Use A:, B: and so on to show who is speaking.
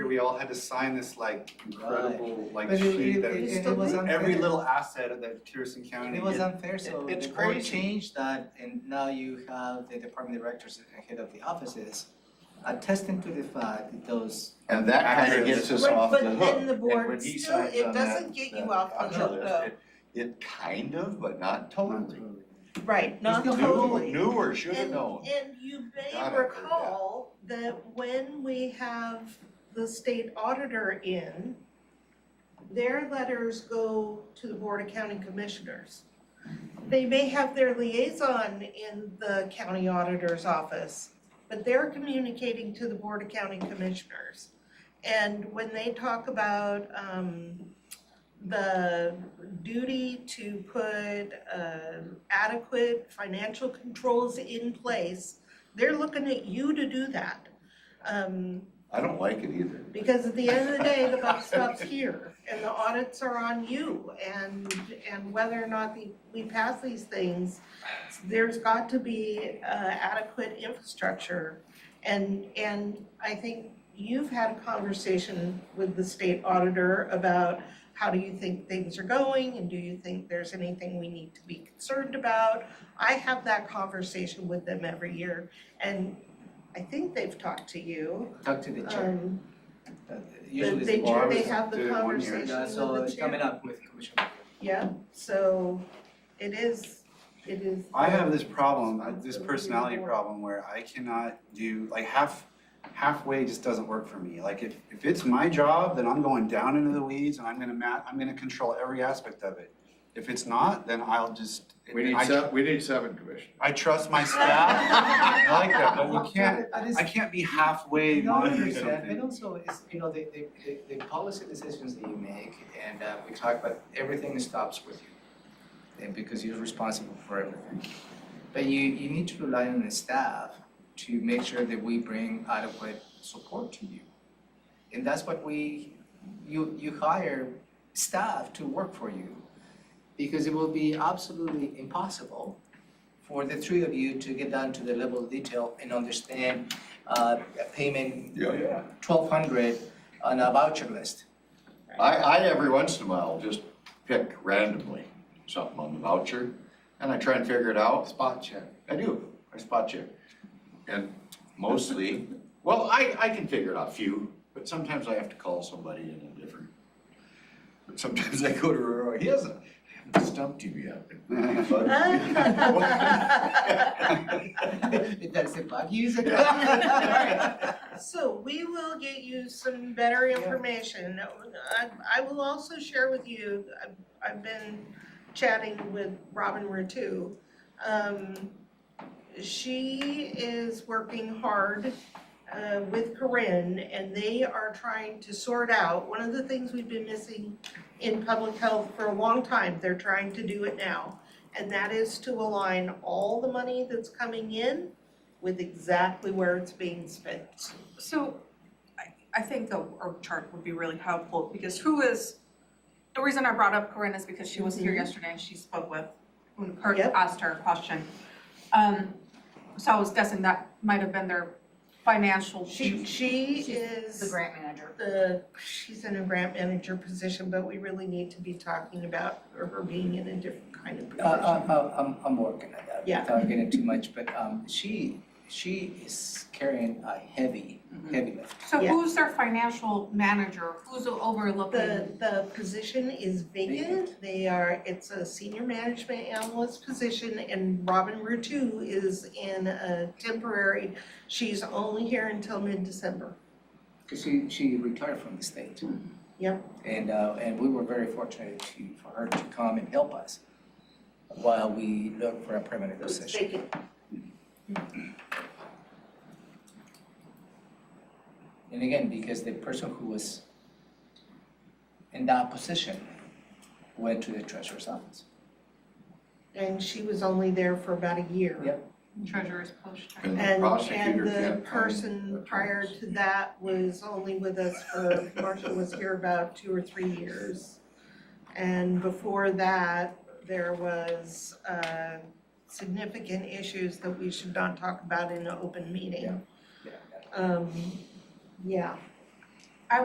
A: we all had to sign this like incredible like
B: But it-
A: sheet
B: it-
A: that
B: it-
C: It's
B: it
C: the
B: was
C: link.
B: unfair.
A: every little asset that Pearson County.
B: It was
A: did.
B: unfair, so
C: It- it's
B: the board
C: crazy.
B: changed that and now you have the department directors and head of the offices attesting to the fact that those.
D: And that kind
A: Accurate.
D: of gets us
C: Right,
D: off the
C: but
D: hook.
C: then the board
D: And when he
C: still-
D: signs
C: it
D: on
C: doesn't
D: that-
C: get you
D: that
C: off the
D: contract,
C: hook, though.
D: it- It kind of, but not totally.
C: Right, not
B: still
D: Knew-
B: have-
C: totally.
D: Knew or should have known.
C: And and you may
D: Gotta heard that.
C: recall that when we have the state auditor in, their letters go to the Board of County Commissioners. They may have their liaison in the county auditor's office, but they're communicating to the Board of County Commissioners. And when they talk about um the duty to put uh adequate financial controls in place, they're looking at you to do that. Um
D: I don't like it either.
C: because at the end of the day, the buck stops here and the audits are on you and and whether or not the we pass these things, there's got to be uh adequate infrastructure. And and I think you've had a conversation with the state auditor about how do you think things are going and do you think there's anything we need to be concerned about? I have that conversation with them every year and I think they've talked to you.
B: Talk to the chair,
C: Um
B: uh,
C: they
B: usually
C: they
B: the board.
C: do, they
A: always
C: have
A: do
C: the
A: it one year.
C: conversation with the
B: Yeah,
C: chair.
B: so it's coming up with Commissioner.
C: Yeah, so it is, it is.
A: I have this problem, I- this personality problem where I cannot do, like half, halfway just doesn't work for me. Like if, if it's my job, then I'm going down into the weeds and I'm gonna ma- I'm gonna control every aspect of it. If it's not, then I'll just,
E: We need
A: I-
E: seven, we need seven commissioners.
A: I trust my staff, I like that, but we can't,
B: Uh, I just-
A: I can't be halfway
B: No, I
A: monitoring
B: understand,
A: something.
B: But also, it's, you know, the, the, the, the policy decisions that you make, and, uh, we talk about everything stops with you. And because you're responsible for everything. But you, you need to rely on the staff to make sure that we bring adequate support to you. And that's what we, you, you hire staff to work for you. Because it will be absolutely impossible for the three of you to get down to the level of detail and understand uh payment
D: Yeah, yeah.
B: twelve hundred on a voucher list.
D: I, I every once in a while just pick randomly something on the voucher and I try and figure it out.
E: Spot check.
D: I do, I spot check. And mostly, well, I, I can figure it out, few, but sometimes I have to call somebody in a different. But sometimes I go to Roy, he hasn't, I haven't stumped you yet.
B: It does it bug you?
C: So we will get you some better information. I, I will also share with you, I've, I've been chatting with Robin Ratu. Um, she is working hard, uh, with Corinne and they are trying to sort out, one of the things we've been missing in public health for a long time, they're trying to do it now. And that is to align all the money that's coming in with exactly where it's being spent.
F: So I I think a org chart would be really helpful because who is, the reason I brought up Corinne is because she was here yesterday and she spoke with, when Kurt
C: Mm-hmm. Yep.
F: asked her a question. Um, so I was guessing that might have been their financial.
C: She, she
F: She's
C: is
F: The grant manager.
C: the, she's in a grant manager position, but we really need to be talking about her being in a different kind of
B: Uh, uh,
C: position.
B: uh, I'm, I'm working on that,
C: Yeah.
B: without getting too much, but, um, she, she is carrying a heavy, heavy lift.
F: So
C: Yeah.
F: who's their financial manager? Who's
C: The,
F: overlooking?
C: the position is vacant, they are, it's a senior management analyst position, and Robin Rutu is in a temporary, she's only here until mid-December.
B: Cause she, she retired from the state.
C: Yep.
B: And, uh, and we were very fortunate to, for her to come and help us while we look for a permanent
C: It's
B: position.
C: vacant.
B: And again, because the person who was in that position went to the treasurer's office.
C: And she was only there for about a year.
B: Yep.
F: Treasurer's post.
D: And the
C: And,
D: prosecutor
C: and
D: can't
C: the
D: find
C: person
D: attorneys.
C: prior to that was only with us for, Marshall was here about two or three years. And before that, there was, uh, significant issues that we should not talk about in an open meeting.
B: Yeah.
C: Um, yeah,